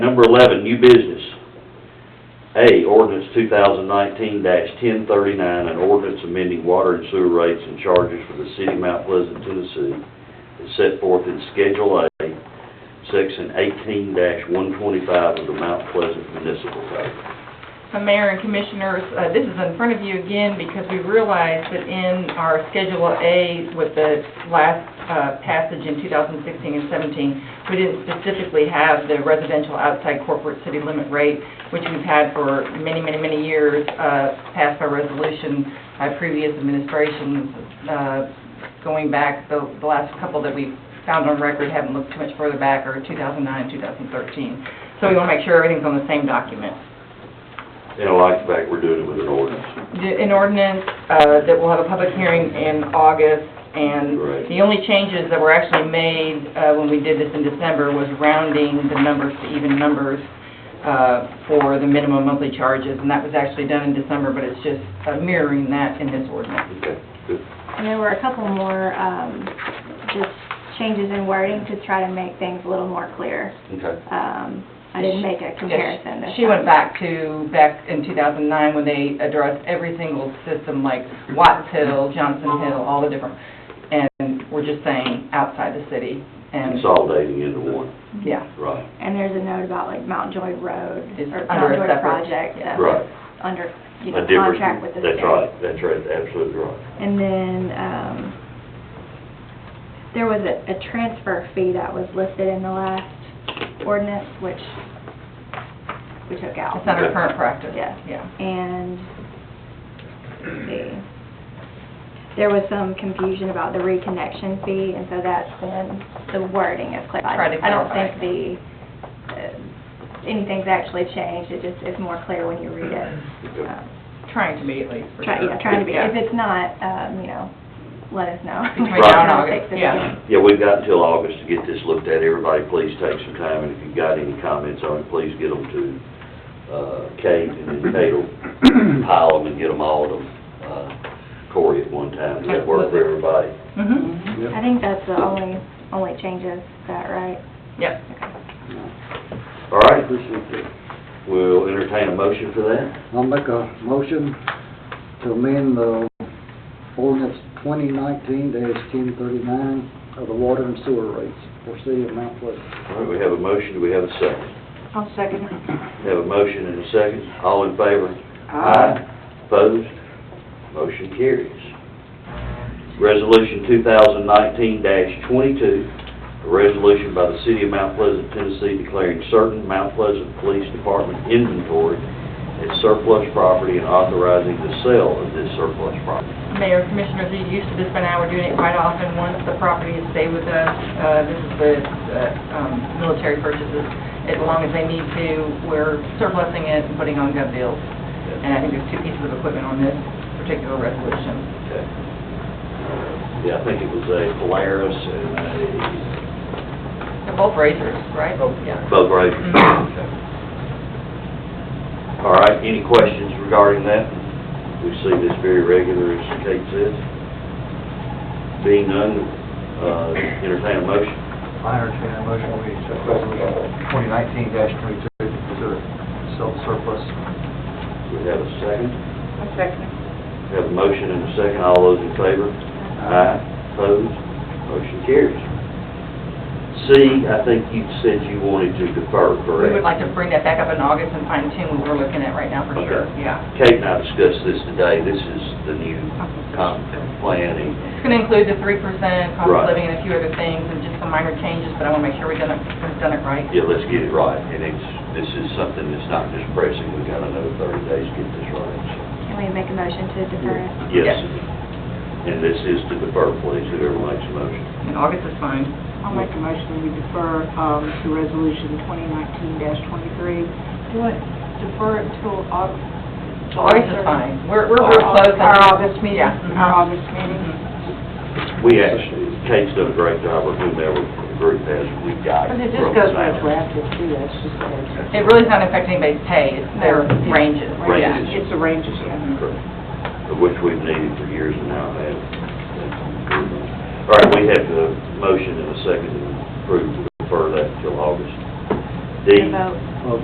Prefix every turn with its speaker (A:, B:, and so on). A: number eleven, new business. A, ordinance two thousand nineteen ten thirty-nine, an ordinance amending water and sewer rates and charges for the city of Mount Pleasant, Tennessee, is set forth in Schedule A, section eighteen one twenty-five of the Mount Pleasant Municipal Code.
B: So Mayor and Commissioners, uh, this is in front of you again because we realized that in our Schedule A with the last uh, passage in 2016 and 17, we didn't specifically have the residential outside corporate city limit rate, which we've had for many, many, many years, uh, passed by resolution by previous administrations, uh, going back, the the last couple that we found on record, haven't looked too much further back, are 2009 and 2013. So we want to make sure everything's on the same document.
A: And I like the fact we're doing it with an ordinance.
B: an ordinance uh, that will have a public hearing in August, and
A: Right.
B: the only changes that were actually made uh, when we did this in December was rounding the numbers to even numbers uh, for the minimum monthly charges, and that was actually done in December, but it's just uh, mirroring that in this ordinance.
A: Okay, good.
C: And there were a couple more, um, just changes in wording to try to make things a little more clear.
A: Okay.
C: Um, I didn't make a comparison this
B: She went
C: time.
B: back to, back in 2009, when they addressed every single system, like Watts Hill, Johnson Hill, all the different, and we're just saying outside the city, and,
A: Consolidating into one,
B: yeah.
A: right,
C: And there's a note about like Mount Joy Road
B: It's
C: or
B: under
C: Mount
B: a
C: Joy
B: separate-
C: Project that
A: right.
C: was under, you
A: A
C: know,
A: different-
C: contract with the
A: That's
C: state.
A: right, that's right, absolutely right.
C: And then, um, there was a, a transfer fee that was listed in the last ordinance, which we took out.
B: It's not our current practice.
C: Yeah.
B: Yeah.
C: And, let's see, there was some confusion about the reconnection fee, and so that's when the wording is clarified.
B: Try to
C: I don't
B: clarify.
C: think the, uh, anything's actually changed, it just is more clear when you read it.
A: Okay.
C: Uh,
B: Trying to be at least, for
C: Try,
B: sure.
C: yeah, trying to be,
B: Yeah.
C: if it's not, um, you know, let us know.
B: Between
A: Right. now
B: and
C: I'll
B: August,
C: fix it
B: yeah.
C: again.
A: Yeah, we've got until August to get this looked at. Everybody, please take some time, and if you've got any comments on it, please get them to uh, Kate, and then Kate will pile them and get them all to uh, Cory at one time. Does that work for everybody?
B: Mhm.
D: Mm-hmm.
C: I think that's the only, only changes, is that right?
B: Yep.
A: All right,
D: Appreciate that.
A: we'll entertain a motion for that.
D: I'll make a motion to amend the ordinance twenty nineteen ten thirty-nine of the water and sewer rates for city of Mount Pleasant.
A: All right, we have a motion. Do we have a second?
E: I'll second it.
A: We have a motion and a second. All in favor? Opposed? Motion carries. Resolution 2019-22, a resolution by the City of Mount Pleasant, Tennessee declaring certain Mount Pleasant Police Department inventory as surplus property and authorizing the sale of this surplus property.
B: Mayor, Commissioners, you're used to this by now, we're doing it quite often. Once the property is stay with us, uh, this is the uh, um, military purchases, as long as they need to, we're surplusing it and putting on gov deals. And I think there's two pieces of equipment on this particular resolution.
A: Okay. Yeah, I think it was a Polaris and
B: They're both razors, right? Both,
A: a
B: yeah.
A: boat race.
B: Mm-hmm.
A: Okay. All right, any questions regarding that? We see this very regular, as Kate says. Being none, uh, entertain a motion.
F: I entertain a motion, we accept resolution twenty nineteen twenty-two, consider self surplus.
A: We have a second.
B: A second.
A: We have a motion and a second. All those in favor? Aye. Opposed? Motion carries. C, I think you said you wanted to defer,
B: We would
A: correct?
B: like to bring that back up in August and fine tune what we're looking at right now for sure,
A: Okay.
B: yeah.
A: Kate and I discussed this today. This is the new comp plan. and
B: It's going to include the three percent cost
A: Right.
B: of living and a few other things, and just some minor changes, but I want to make sure we've done it, we've done it right.
A: Yeah, let's get it right, and it's, this is something that's not just pressing, we've got another thirty days to get this right, so.
C: Can we make a motion to defer it?
A: Yes,
B: Yes.
A: and this is to defer, please, whoever makes a motion.
B: And August is fine.
E: I'll make a motion, we defer, um, to resolution twenty nineteen twenty-three. Do it, defer it till August.
B: August is fine. We're, we're real close.
E: Our August meeting,
B: Yeah. Mhm.
E: our August meeting.
B: Mhm.
A: We actually, Kate's done a great job, or whomever the group has, we got.
E: But
A: it
E: it
A: broken
E: just goes
A: down.
E: retroactive too, that's just, it's,
B: It really is not affecting anybody's pay, it's their
E: No.
B: ranges.
A: Ranges.
B: Yeah.
E: it's a range of, yeah.
A: Correct. Of which we've needed for years and now have. All right, we have the motion and a second to approve to defer that until August.
G: D.
H: to vote.
C: of